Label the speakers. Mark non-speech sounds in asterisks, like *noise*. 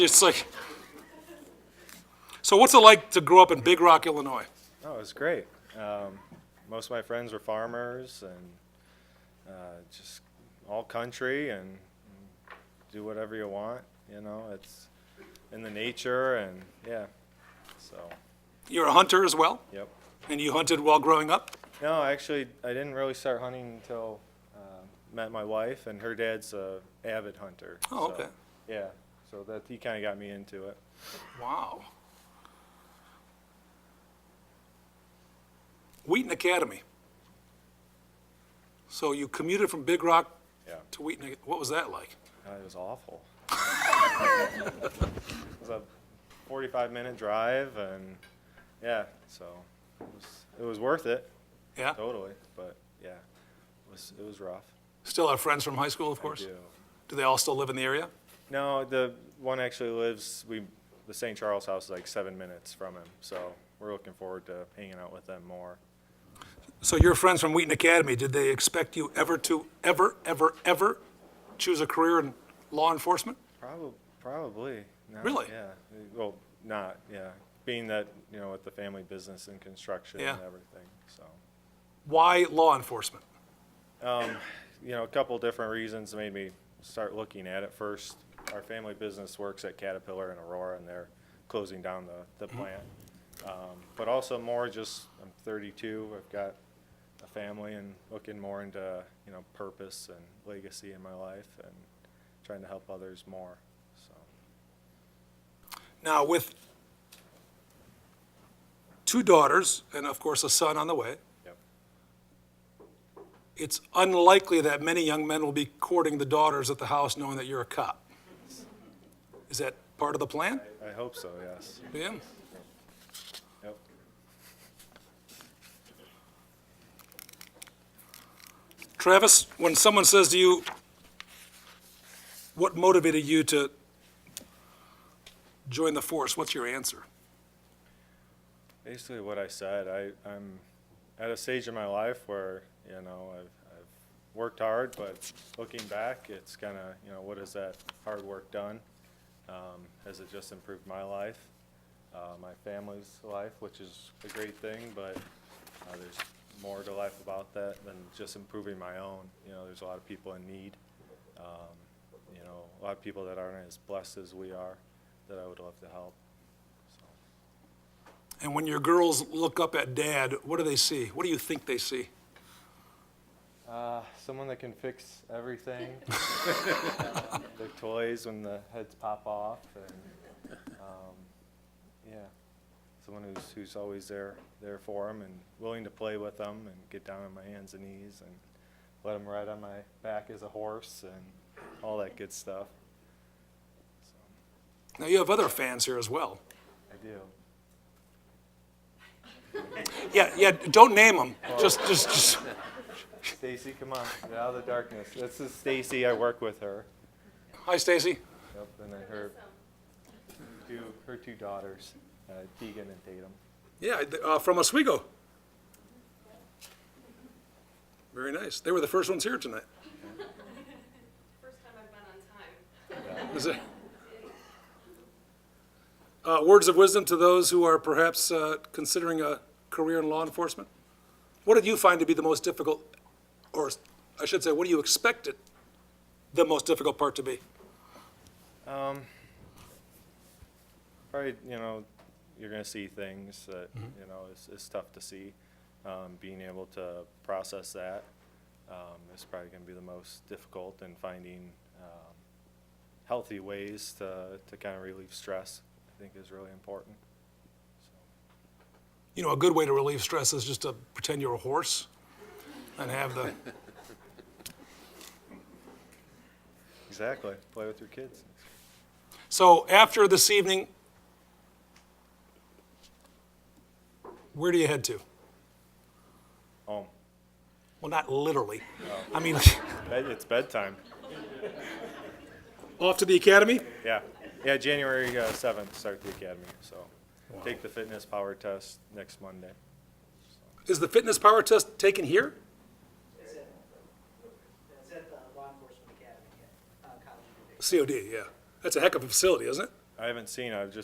Speaker 1: It's like, so what's it like to grow up in Big Rock, Illinois?
Speaker 2: Oh, it was great. Um, most of my friends were farmers and uh, just all country and do whatever you want. You know, it's in the nature and yeah. So,
Speaker 1: You're a hunter as well,
Speaker 2: yep.
Speaker 1: and you hunted while growing up?
Speaker 2: No, actually, I didn't really start hunting until uh, met my wife, and her dad's a avid hunter.
Speaker 1: Oh,
Speaker 2: so,
Speaker 1: okay.
Speaker 2: Yeah, so that he kind of got me into it.
Speaker 1: Wow. Wheaton Academy. So you commuted from Big Rock
Speaker 2: Yeah,
Speaker 1: to Wheaton, what was that like?
Speaker 2: Uh, it was awful. it was a 45-minute drive, and yeah, so it was, it was worth it
Speaker 1: Yeah,
Speaker 2: totally, but yeah, it was it was rough.
Speaker 1: still have friends from high school, of
Speaker 2: I
Speaker 1: course?
Speaker 2: do.
Speaker 1: Do they all still live in the area?
Speaker 2: No, the one actually lives. We the St. Charles house is like seven minutes from him, so we're looking forward to hanging out with them more.
Speaker 1: So your friends from Wheaton Academy, did they expect you ever to, ever, ever, ever choose a career in law enforcement?
Speaker 2: Probably, probably. Not,
Speaker 1: Really?
Speaker 2: Yeah. Well, not. Yeah. Being that you know with the family business and construction
Speaker 1: Yeah.
Speaker 2: and everything, so.
Speaker 1: Why law enforcement?
Speaker 2: you know, a couple different reasons made me start looking at it. First, our family business works at Caterpillar in Aurora, and they're closing down the, the plant. Um, But also more just, I'm thirty-two, I've got a family and looking more into, you know, purpose and legacy in my life and trying to help others more, so.
Speaker 1: Now, with two daughters and, of course, a son on the way,
Speaker 2: Yep.
Speaker 1: it's unlikely that many young men will be courting the daughters at the house knowing that you're a cop. Is that part of the plan?
Speaker 2: I hope so, yes.
Speaker 1: Yeah.
Speaker 2: Yep.
Speaker 1: Travis, when someone says to you, what motivated you to join the force, what's your answer?
Speaker 2: basically what I said. I, I'm at a stage in my life where, you know, I've, I've worked hard, but looking back, it's kind of, you know, what has that hard work done? Um, has it just improved my life, uh, my family's life, which is a great thing, but uh, there's more to life about that than just improving my own. You know, there's a lot of people in need. Um, you know, a lot of people that aren't as blessed as we are that I would love to help. So.
Speaker 1: And when your girls look up at dad, what do they see? What do you think they see?
Speaker 2: Uh, someone that can fix everything. Their toys when the heads pop off, and um, yeah, someone who's who's always there there for them and willing to play with them and get down on my hands and knees and let them ride on my back as a horse and all that good stuff. So,
Speaker 1: Now, you have other fans here as well.
Speaker 2: I do.
Speaker 1: Yeah, yeah, don't name them. Just, just, just.
Speaker 2: Stacy, come on, get out of the darkness. This is Stacy. I work with her.
Speaker 1: Hi, Stacy.
Speaker 2: Yep, and then her two her two daughters, uh, Tegan and Tatum.
Speaker 1: Yeah, uh, from Oswego. Very nice. They were the first ones here tonight.
Speaker 3: First time I've been on time.
Speaker 1: Is it- Uh, words of wisdom to those who are perhaps uh, considering a career in law enforcement? What did you find to be the most difficult, or I should say, what do you expect it, the most difficult part to be?
Speaker 2: Um, probably, you know, you're gonna see things that, you know, it's, it's tough to see. Um, being able to process that, um, is probably gonna be the most difficult and finding, um, healthy ways to, to kind of relieve stress, I think is really important.
Speaker 1: You know, a good way to relieve stress is just to pretend you're a horse and have the,
Speaker 2: Exactly, play with your kids.
Speaker 1: So after this evening, where do you head to?
Speaker 2: Home,
Speaker 1: Well, not literally. I mean, *laughs*
Speaker 2: Bed- it's bedtime,
Speaker 1: off to the academy?
Speaker 2: yeah. Yeah, January uh, seventh, start the academy, so. Take the fitness power test next Monday.
Speaker 1: Is the fitness power test taken here?
Speaker 4: It's at, it's at the law enforcement academy, at, uh, college.
Speaker 1: COD, yeah. That's a heck of a facility, isn't it?
Speaker 2: I haven't seen, I've just